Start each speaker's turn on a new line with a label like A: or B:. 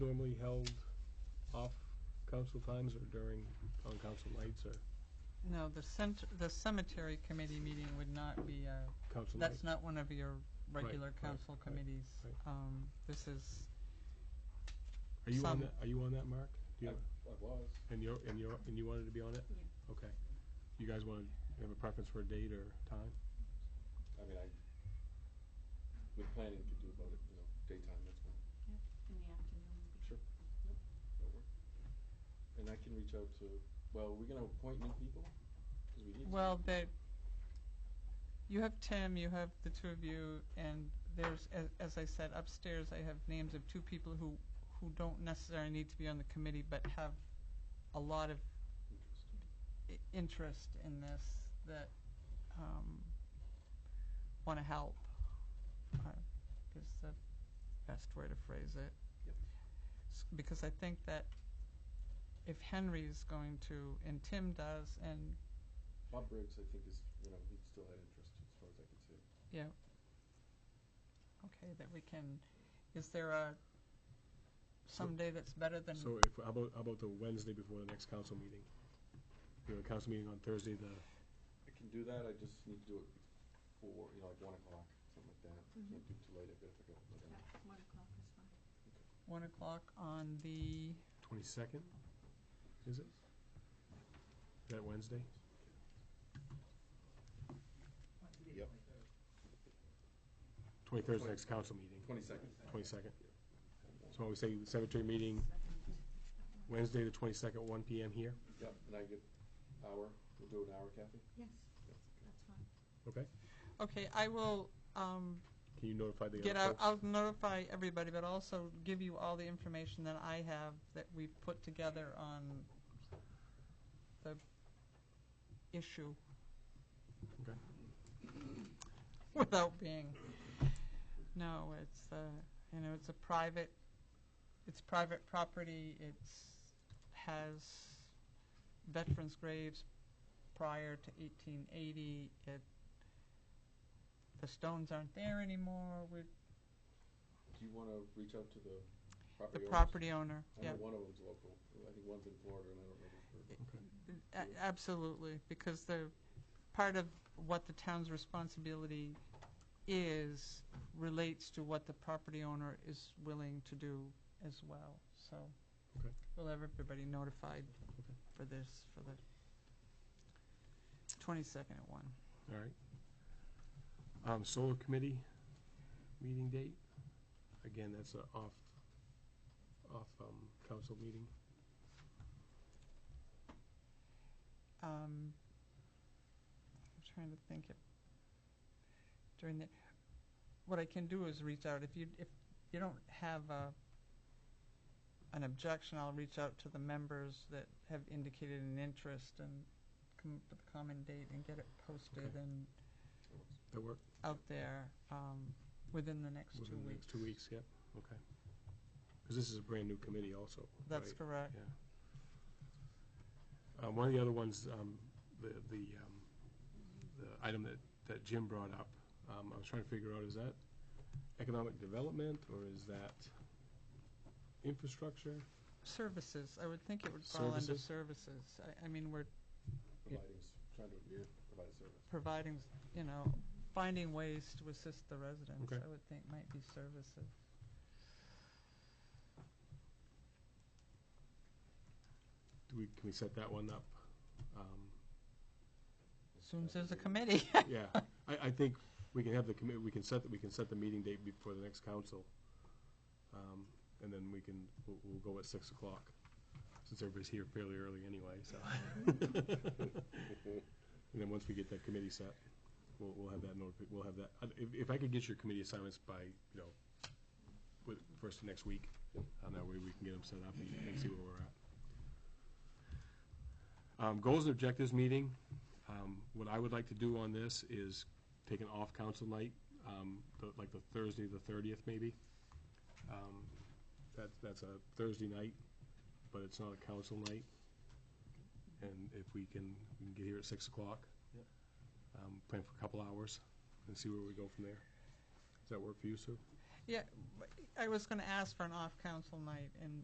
A: normally held off council times or during on-council nights or
B: No, the cent, the cemetery committee meeting would not be a,
A: council nights?
B: that's not one of your regular
A: right,
B: council
A: right,
B: committees.
A: right.
B: Um, this is,
A: Are you on
B: some-
A: that, are you on that, Mark? Do you,
C: I was.
A: and you're, and you're, and you wanted to be on it?
D: Yeah.
A: Okay. You guys wanna, have a preference for a date or time?
C: I mean, I, with planning, could do about it, you know, daytime, that's fine.
D: in the afternoon. would be-
C: Sure. Yep, that'll work. And I can reach out to, well, we're gonna appoint new people? 'Cause we need. to.
B: well, that, you have Tim, you have the two of you, and there's, as, as I said, upstairs I have names of two people who, who don't necessarily need to be on the committee, but have a lot of
C: Interest.
B: i- interest in this that um, want to help uh, is the best way to phrase it.
C: Yep.
B: S- Because I think that if Henry's going to, and Tim does, and
C: Bob Briggs, I think is, you know, he still had interest as far as I could see.
B: yeah, okay, that we can. Is there a someday that's better than
A: So if, how about, how about the Wednesday before the next council meeting? We have a council meeting on Thursday, the,
C: I can do that, I just need to do it before, you know, like one o'clock, something like that.
B: Mm-hmm.
D: Mhm.
C: Can't do too late, I gotta pick up.
D: Yeah, one o'clock is fine.
B: one o'clock on the?
A: twenty-second, is it? That Wednesday?
C: Yep.
A: Twenty-third's next council meeting,
C: Twenty-second.
A: twenty-second. So we say cemetery meeting Wednesday, the twenty-second, one PM here,
C: Yep, and I get hour, we'll do an hour, Kathy?
D: Yes,
C: Yep.
D: that's fine.
A: okay?
B: Okay, I will. Um,
A: Can you notify the
B: get
A: other
B: out,
A: folks?
B: I'll notify everybody, but also give you all the information that I have that we've put together on the issue.
A: Okay.
B: Without being, no, it's, uh, you know, it's a private, it's private property, it's, has veterans' graves prior to eighteen eighty, it, the stones aren't there anymore, we,
C: Do you wanna reach out to the
B: The
C: property owners?
B: property owner,
C: I
B: yeah,
C: know one of them's local. I think one's in Florida, and I don't know.
B: A- absolutely, because the, part of what the town's responsibility is relates to what the property owner is willing to do as well, so.
A: Okay.
B: We'll have everybody notified
A: Okay.
B: for this, for the twenty-second at one.
A: All right. Um, solar committee meeting date, again, that's a off, off, um, council meeting.
B: Um, I'm trying to think if during the, what I can do is reach out, if you, if you don't have a, an objection, I'll reach out to the members that have indicated an interest and come up with a common date and get it posted
A: Okay.
B: and
A: That work?
B: out there, um, within the next two
A: Within the
B: weeks.
A: next two weeks, yep, okay. Because this is a brand-new committee also,
B: That's
A: right?
B: correct.
A: Yeah. Uh, one of the other ones, um, the, the, um, the item that, that Jim brought up, um, I was trying to figure out, is that economic development, or is that infrastructure?
B: Services, I would think it would fall under
A: Services?
B: services. I, I mean, we're
C: Providing, s- trying to yeah, provide a service.
B: providing, you know, finding ways to assist the residents,
A: Okay.
B: I would think might be services.
A: Do we, can we set that one up? Um,
B: Soon as there's a committee.
A: Yeah, I, I think we can have the committee, we can set, the- we can set the meeting date before the next council. Um, And then we can, we'll, we'll go at six o'clock, since everybody's here fairly early anyway, so. And then once we get that committee set, we'll, we'll have that notifi, we'll have that, I- if, if I could get your committee assignments by, you know, with, first of next week, and that way we can get them set up and and see where we're at. Um, goals and objectives meeting, um, what I would like to do on this is take an off-council night, um, the- like the Thursday, the thirtieth maybe. Um, that, that's a Thursday night, but it's not a council night. And if we can, we can get here at six o'clock.
C: Yep.
A: Um, plan for a couple hours and see where we go from there. Does that work for you, Sue?
B: I was gonna ask for an off-council night, and